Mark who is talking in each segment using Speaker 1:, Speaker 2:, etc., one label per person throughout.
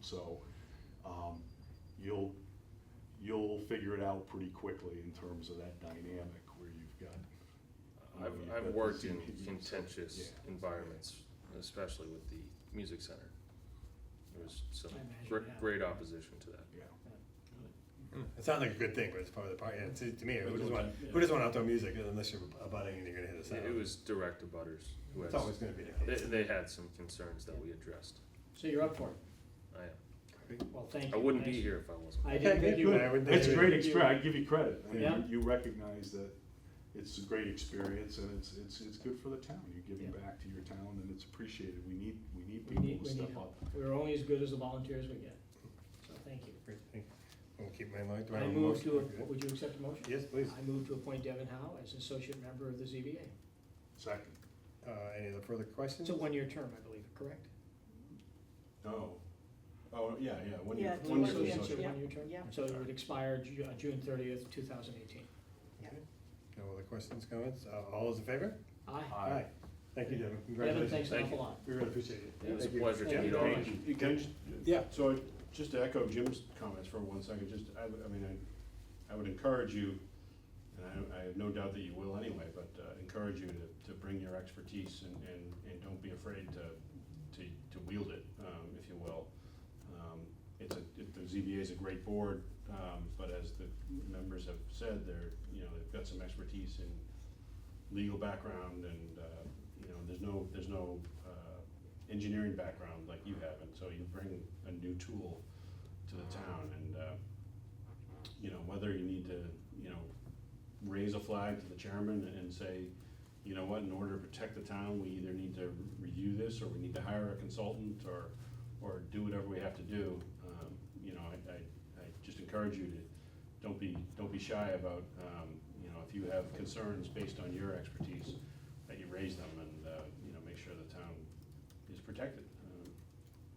Speaker 1: So, um, you'll, you'll figure it out pretty quickly in terms of that dynamic where you've got. you know,
Speaker 2: I've,
Speaker 1: you've got
Speaker 2: I've
Speaker 1: the
Speaker 2: worked in
Speaker 1: CPE.
Speaker 2: contentious
Speaker 1: Yeah.
Speaker 2: environments, especially with the music center. There was some
Speaker 3: I imagine
Speaker 2: great,
Speaker 3: now.
Speaker 2: great opposition to that.
Speaker 1: Yeah.
Speaker 4: It sounds like a good thing, but it's probably the part, yeah, to, to me, who doesn't want, who doesn't want outdoor music unless you're abutting and you're gonna hit a sound?
Speaker 2: It was direct abutters who
Speaker 4: It's
Speaker 2: has,
Speaker 4: always gonna be
Speaker 2: they,
Speaker 4: the case.
Speaker 2: they had some concerns that we addressed.
Speaker 3: So you're up for it.
Speaker 2: I am.
Speaker 3: Well, thank you.
Speaker 2: I wouldn't be
Speaker 3: Thanks.
Speaker 2: here if I wasn't.
Speaker 3: I didn't think you
Speaker 4: Good.
Speaker 3: would.
Speaker 4: I would-
Speaker 1: It's a great
Speaker 3: Thank you.
Speaker 1: experience, I give you credit, I mean,
Speaker 3: Yeah.
Speaker 1: you you recognize that it's a great experience and it's, it's, it's good for the town, you're giving
Speaker 3: Yeah.
Speaker 1: back to your town and it's appreciated, we need, we need
Speaker 3: We
Speaker 1: people to
Speaker 3: need, we need
Speaker 1: step up.
Speaker 3: help. We're only as good as the volunteers we get. So thank you.
Speaker 4: Great thing. I'm gonna keep mine light. Do
Speaker 3: I
Speaker 4: have a
Speaker 3: move
Speaker 4: motion?
Speaker 3: to,
Speaker 4: Okay.
Speaker 3: a- would you accept a motion?
Speaker 4: Yes, please.
Speaker 3: I move to appoint Devin Howe as associate member of the ZBA.
Speaker 1: Second,
Speaker 4: Uh, any other further questions?
Speaker 3: It's a one-year term, I believe, correct?
Speaker 1: no, oh, yeah, yeah, when you,
Speaker 5: Yeah,
Speaker 3: It's
Speaker 1: when
Speaker 5: one
Speaker 1: you.
Speaker 5: year,
Speaker 3: associate,
Speaker 5: yeah,
Speaker 3: it's a
Speaker 5: yeah,
Speaker 3: one-year term?
Speaker 5: yeah.
Speaker 3: So it would expire Ju- uh, June thirtieth, two thousand eighteen.
Speaker 4: Okay. No other questions, comments? Uh, all those in favor?
Speaker 3: Aye.
Speaker 1: Aye.
Speaker 4: Thank you, Devin.
Speaker 3: Devin,
Speaker 4: Congratulations.
Speaker 3: thanks an
Speaker 2: Thank
Speaker 3: awful
Speaker 2: you.
Speaker 3: lot.
Speaker 4: We really appreciate it.
Speaker 2: It was a
Speaker 4: Thank you.
Speaker 2: pleasure to
Speaker 3: Thank
Speaker 2: meet
Speaker 3: you
Speaker 2: all
Speaker 3: very
Speaker 2: of
Speaker 3: much.
Speaker 2: you.
Speaker 6: You Can I just?
Speaker 4: Yeah.
Speaker 6: So I- just to echo Jim's comments for one second, just, I, would- I mean, I, I would encourage you, and I, I have no doubt that you will anyway, but uh, encourage you to, to bring your expertise and, and, and don't be afraid to, to, to wield it, um, if you will. Um, It's a, it- the ZBA is a great board, um, but as the members have said, they're, you know, they've got some expertise in legal background and, uh, you know, there's no, there's no, uh, engineering background like you have, and so you bring a new tool to the town, and, uh, you know, whether you need to, you know, raise a flag to the chairman and- and say, you know what, in order to protect the town, we either need to review this, or we need to hire a consultant, or, or do whatever we have to do, um, you know, I, I, I just encourage you to, don't be, don't be shy about, um, you know, if you have concerns based on your expertise, that you raise them and, uh, you know, make sure the town is protected. Um,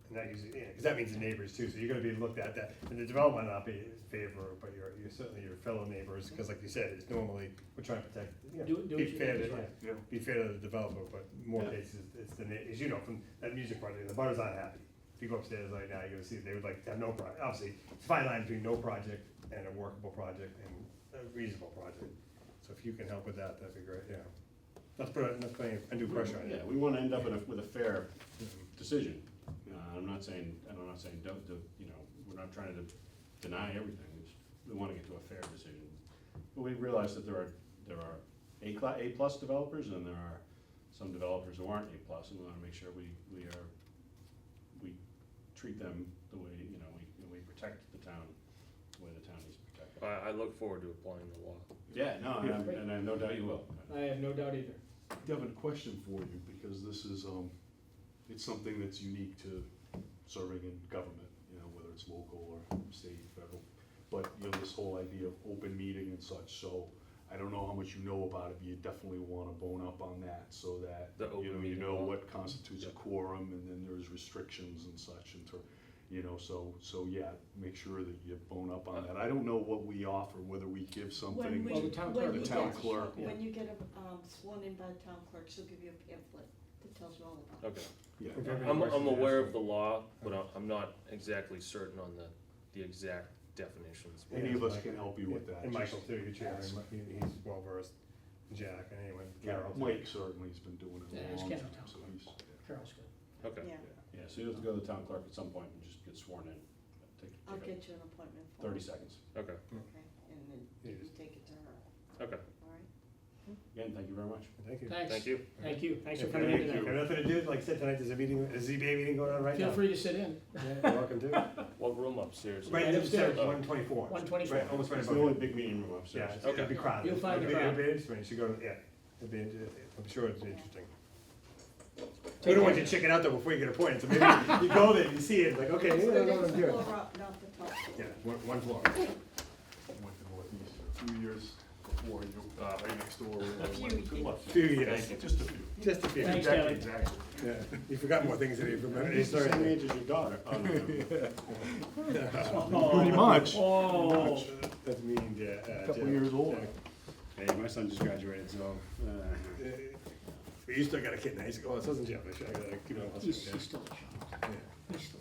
Speaker 4: And that usually, yeah, because that means the neighbors too, so you're gonna be looked at that, and the developer might not be in favor, but you're, you're certainly your fellow neighbors, because like you said, it's normally, we're trying to protect, you know,
Speaker 3: Do- do
Speaker 4: be
Speaker 3: what you
Speaker 4: fair
Speaker 3: think
Speaker 4: to,
Speaker 3: is right.
Speaker 4: yeah, be fair to the developer, but more
Speaker 6: Yeah.
Speaker 4: cases, it's the, na- as you know, from that music project, the butter's not happy. If you go upstairs right now, you're gonna see, they would like to have no pro, obviously, it's a fine line between no project and a workable project and a reasonable project. So if you can help with that, that'd be great, yeah. Let's put, let's put any undue pressure on you.
Speaker 6: Yeah, we wanna end up in a, with a fair
Speaker 4: Mhm.
Speaker 6: decision. Uh, I'm not saying, and I'm not saying don't, do- you know, we're not trying to deny everything, we just, we wanna get to a fair decision. But we realize that there are, there are A cla- A plus developers, and there are some developers who aren't A plus, and we wanna make sure we, we are, we treat them the way, you know, we, we protect the town, the way the town needs to protect.
Speaker 2: I, I look forward to applying the law.
Speaker 6: Yeah, no, and I'm-
Speaker 3: Great.
Speaker 6: and I have no doubt you will.
Speaker 3: I have no doubt either.
Speaker 1: Devin, a question for you, because this is, um, it's something that's unique to serving in government, you know, whether it's local or state, federal. But, you know, this whole idea of open meeting and such, so I don't know how much you know about it, but you definitely wanna bone up on that so that,
Speaker 2: The
Speaker 1: you
Speaker 2: open
Speaker 1: know, you
Speaker 2: meeting
Speaker 1: know
Speaker 2: law.
Speaker 1: what constitutes a quorum and then there's restrictions and such and to, you know, so, so yeah, make sure that you bone up
Speaker 2: Uh,
Speaker 1: on that. I don't know what we offer, whether we give something.
Speaker 5: When we,
Speaker 3: Well,
Speaker 1: to-
Speaker 3: the town
Speaker 5: when
Speaker 3: clerk.
Speaker 5: you
Speaker 1: The town
Speaker 5: get-
Speaker 1: clerk,
Speaker 5: When you get um, sworn in by the town clerk, she'll give you a pamphlet that tells you all about it.
Speaker 2: Okay.
Speaker 1: Yeah.
Speaker 4: If you have any
Speaker 2: I'm,
Speaker 4: questions,
Speaker 2: I'm
Speaker 4: ask
Speaker 2: aware
Speaker 4: them.
Speaker 2: of the law, but I'm- I'm not exactly certain on the, the exact definitions.
Speaker 1: Any of us can help you with that.
Speaker 4: And
Speaker 1: just-
Speaker 4: Michael too, your chair,
Speaker 1: ask.
Speaker 4: and he- he's well versed, Jack, and anyone,
Speaker 1: Yeah,
Speaker 4: Carol. too.
Speaker 1: Mike certainly has been doing it
Speaker 3: Yeah,
Speaker 1: a
Speaker 3: it's
Speaker 1: long time,
Speaker 3: Kevin Town
Speaker 1: so
Speaker 3: Clerk.
Speaker 1: he's,
Speaker 3: Carol's good.
Speaker 2: Okay.
Speaker 5: Yeah,
Speaker 6: Yeah, so you have to go to the town clerk at some point and just get sworn in. Take-
Speaker 5: I'll
Speaker 6: take
Speaker 5: get you an appointment
Speaker 6: a-
Speaker 5: for
Speaker 6: Thirty
Speaker 5: it,
Speaker 6: seconds.
Speaker 2: Okay.
Speaker 5: Okay, and then
Speaker 4: Yeah,
Speaker 5: you
Speaker 4: just-
Speaker 5: take it to her,
Speaker 2: Okay.
Speaker 5: all right?
Speaker 6: Again, thank you very much.
Speaker 4: Thank you.
Speaker 3: Thanks.
Speaker 2: Thank you.
Speaker 3: Thank you. Thanks for
Speaker 4: If
Speaker 3: coming in
Speaker 4: you- if you
Speaker 3: tonight.
Speaker 4: have nothing to do, like I said, tonight, there's a meeting, a ZBA meeting going on right now.
Speaker 3: Feel free to sit in.
Speaker 4: Yeah, you're welcome to.
Speaker 2: What room upstairs?
Speaker 4: Right,
Speaker 3: Right
Speaker 4: it's
Speaker 3: upstairs.
Speaker 4: one twenty-four.
Speaker 3: 124.
Speaker 4: Right, almost right
Speaker 6: It's
Speaker 4: above
Speaker 6: the only
Speaker 4: you.
Speaker 6: big meeting room
Speaker 4: Yeah,
Speaker 6: upstairs.
Speaker 4: it's- it'll be
Speaker 2: Okay.
Speaker 4: crowded.
Speaker 3: You'll find the
Speaker 4: It'll be-
Speaker 3: crowd.
Speaker 4: It'll be interesting, you should go, yeah, it'll be, inter- I'm sure it's interesting. We
Speaker 3: Take
Speaker 4: don't want
Speaker 3: care.
Speaker 4: you checking out though before you get appointed, so maybe you go there, you see it, like, okay,
Speaker 5: It's
Speaker 4: maybe I
Speaker 5: the
Speaker 4: don't know what
Speaker 5: next
Speaker 4: I'm doing.
Speaker 5: floor up, not the top floor.
Speaker 4: Yeah, one, one floor.
Speaker 1: went to Northeast a few years before you, uh, right next door. A
Speaker 5: few
Speaker 1: Good luck.
Speaker 4: Few years,
Speaker 1: Just a few.
Speaker 4: just a few.
Speaker 3: Thanks, Kevin.
Speaker 4: Exactly.
Speaker 1: Exactly.
Speaker 4: Yeah, you forgot more things than you remember.
Speaker 6: It's the same age as your daughter. Oh, no, no, no.
Speaker 1: Pretty much.
Speaker 3: Oh.
Speaker 4: That's me and Ja- uh,
Speaker 1: Couple
Speaker 4: Jeff.
Speaker 1: years older.
Speaker 6: Hey, my son just graduated, so, uh,
Speaker 4: Uh, But you still got a kid in high school, Oh, it says in Jeff, I should, I gotta keep it on.
Speaker 3: He's he's still a child.
Speaker 4: Yeah.
Speaker 3: He's still